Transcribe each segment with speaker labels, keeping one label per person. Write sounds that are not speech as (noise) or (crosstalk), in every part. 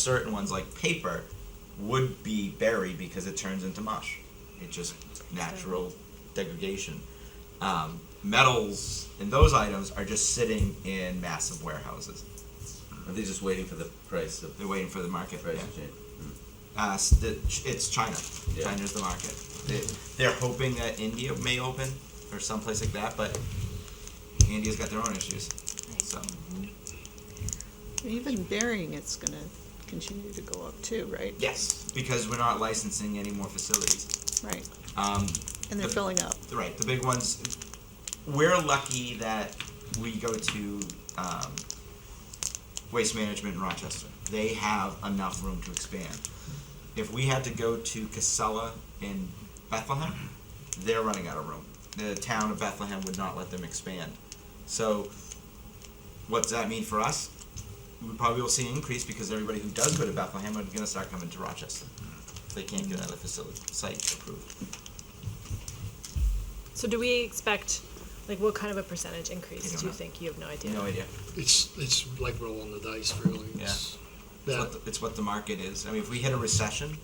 Speaker 1: certain ones like paper would be buried because it turns into mush. It just natural degradation. Um, metals and those items are just sitting in massive warehouses.
Speaker 2: Are they just waiting for the price of
Speaker 1: They're waiting for the market.
Speaker 2: price
Speaker 1: yeah.
Speaker 2: to change?
Speaker 1: Uh, s- the- it's China.
Speaker 2: Yeah.
Speaker 1: China's the market. They, they're hoping that India may open or someplace like that, but India's got their own issues. So
Speaker 3: Even burying it's gonna continue to go up too, right?
Speaker 1: yes, because we're not licensing any more facilities.
Speaker 3: Right,
Speaker 1: Um,
Speaker 3: and they're
Speaker 1: But-
Speaker 3: filling up.
Speaker 1: right, the big ones. We're lucky that we go to um, Waste Management in Rochester. They have enough room to expand. If we had to go to Casella in Bethlehem, they're running out of room. The town of Bethlehem would not let them expand. So, what does that mean for us? We probably will see an increase because everybody who does go to Bethlehem are going to start coming to Rochester. if They can't get another facility site approved.
Speaker 4: So do we expect, like, what kind of a percentage increase
Speaker 1: You don't
Speaker 4: do you
Speaker 1: know.
Speaker 4: think? You have no idea.
Speaker 1: No idea.
Speaker 5: It's, it's like rolling the dice, really. It's
Speaker 1: It's
Speaker 5: That,
Speaker 1: what, the, it's what the market is. I mean, if we hit a recession,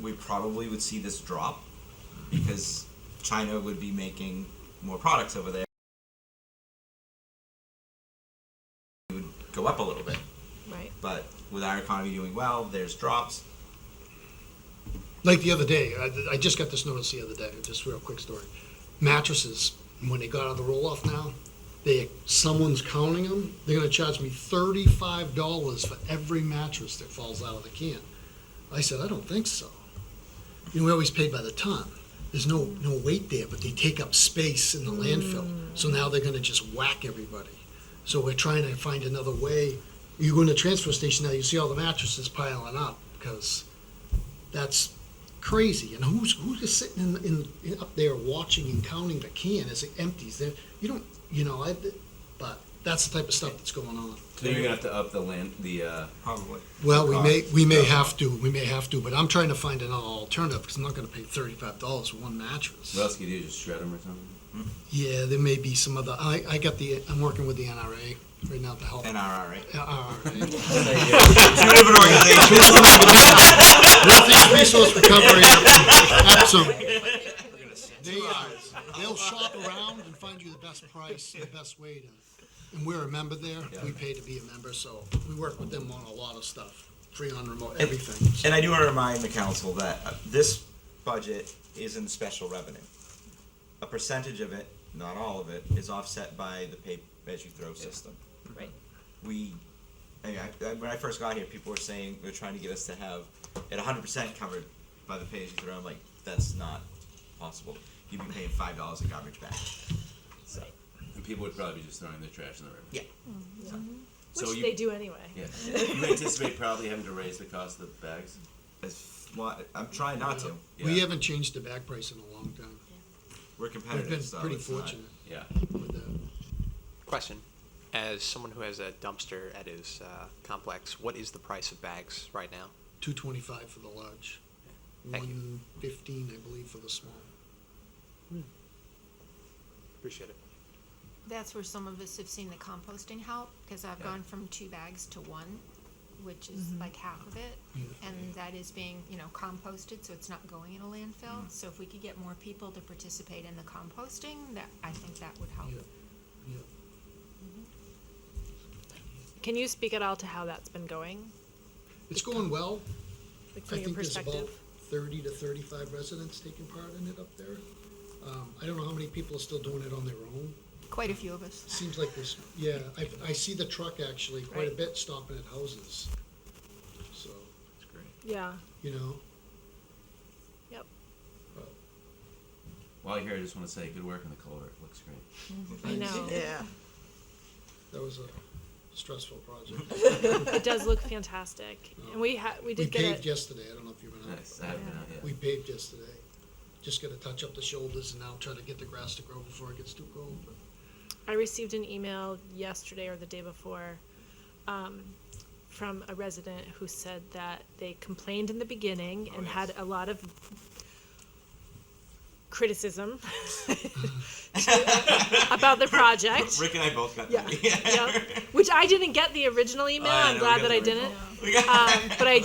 Speaker 1: we probably would see this drop because China would be making more products over there. It would go up a little bit,
Speaker 4: Right.
Speaker 1: but with our economy doing well, there's drops.
Speaker 5: like the other day, I, I just got this notice the other day, just real quick story. Mattresses, when they got out of the roll-off now, they, someone's counting them, they're gonna charge me thirty-five dollars for every mattress that falls out of the can. I said, I don't think so. You know, we always paid by the ton. There's no, no weight there, but they take up space in the landfill. So now they're gonna just whack everybody. So we're trying to find another way. You go in the transfer station now, you see all the mattresses piling up, because that's crazy. And who's, who's just sitting in, in, in, up there watching and counting the can as it empties there? You don't, you know, I, but that's the type of stuff that's going on.
Speaker 2: So you're gonna have to up the land, the, uh,
Speaker 1: Probably.
Speaker 5: Well, we may, we may
Speaker 2: Cost.
Speaker 5: have to, we may have to, but I'm trying to find an alternative, because I'm not gonna pay thirty-five dollars for one mattress.
Speaker 2: what else could you do, just shred them or something?
Speaker 5: Yeah, there may be some other, I, I got the, I'm working with the NRA right now to help.
Speaker 1: NRR, right?
Speaker 5: NRA.
Speaker 1: Two different organizations.
Speaker 5: Northeast Resource Recovery, absolutely. They, uh, they'll shop around and find you the best price, the best way to, and we're a member there, we pay to be a member, so we work with them on a lot of stuff, free on remote, everything. so.
Speaker 1: And I do want to remind the council that uh, this budget is in special revenue. A percentage of it, not all of it, is offset by the pay as you throw system.
Speaker 4: Right.
Speaker 1: We, I mean, I, I- when I first got here, people were saying they were trying to get us to have it 100% covered by the pay as you throw. I'm like, that's not possible. You'd be paying five dollars a garbage bag. So
Speaker 2: And people would probably be just throwing their trash in the river.
Speaker 1: yeah,
Speaker 2: So
Speaker 4: Mm, Which
Speaker 2: you-
Speaker 4: they do anyway.
Speaker 2: Yeah. You anticipate probably having to raise the cost of the bags?
Speaker 1: That's why- I'm trying not to.
Speaker 5: We
Speaker 2: Yeah.
Speaker 5: haven't changed the back price in a long time.
Speaker 1: We're
Speaker 5: We've
Speaker 1: competitive.
Speaker 5: been
Speaker 1: so
Speaker 5: pretty
Speaker 1: it's not-
Speaker 5: fortunate
Speaker 2: Yeah.
Speaker 5: with that.
Speaker 6: Question. As someone who has a dumpster at his uh, complex, what is the price of bags right now?
Speaker 5: Two twenty-five for the large,
Speaker 6: Thank you.
Speaker 5: one fifteen, I believe, for the small.
Speaker 6: Appreciate it.
Speaker 7: That's where some of us have seen the composting help, because I've gone from two bags to one, which is like half of it. And that is being, you know, composted, so it's not going in a landfill. So if we could get more people to participate in the composting, that, I think that would help.
Speaker 5: Yeah, yeah.
Speaker 4: Can you speak at all to how that's been going,
Speaker 5: It's going well.
Speaker 4: like from
Speaker 5: I
Speaker 4: your
Speaker 5: think there's about
Speaker 4: perspective?
Speaker 5: thirty to thirty-five residents taking part in it up there. Um, I don't know how many people are still doing it on their own.
Speaker 7: Quite a few of us.
Speaker 5: Seems like this, yeah, I, I see the truck actually quite a
Speaker 4: Right.
Speaker 5: bit stopping at houses. So,
Speaker 4: Yeah.
Speaker 5: you know,
Speaker 4: Yep.
Speaker 2: While you're here, I just wanna say, good work on the culvert, looks great.
Speaker 4: I know.
Speaker 3: Yeah.
Speaker 5: that was a stressful project.
Speaker 4: It does look fantastic.
Speaker 5: (laughs)
Speaker 4: And we ha- we
Speaker 5: We
Speaker 4: did get
Speaker 5: paved
Speaker 4: it.
Speaker 5: yesterday, I don't know if you remember.
Speaker 2: Nice, I haven't been out yet.
Speaker 5: We paved yesterday. Just gotta touch up the shoulders and now try to get the grass to grow before it gets too cold. but-
Speaker 4: I received an email yesterday or the day before um, from a resident who said
Speaker 1: Oh,
Speaker 4: that they complained in the beginning and
Speaker 1: yes.
Speaker 4: had a lot of criticism (laughs) to- about
Speaker 1: (laughs)
Speaker 4: the project.
Speaker 1: Rick and I both got
Speaker 4: Yeah.
Speaker 1: that.
Speaker 4: Yep. Which I didn't get the original email.
Speaker 1: yeah,
Speaker 4: I'm
Speaker 1: no, Oh, we
Speaker 4: glad
Speaker 1: got
Speaker 4: that
Speaker 1: the
Speaker 4: I
Speaker 1: original. (laughs)
Speaker 4: didn't.
Speaker 1: We got-
Speaker 4: Um, but I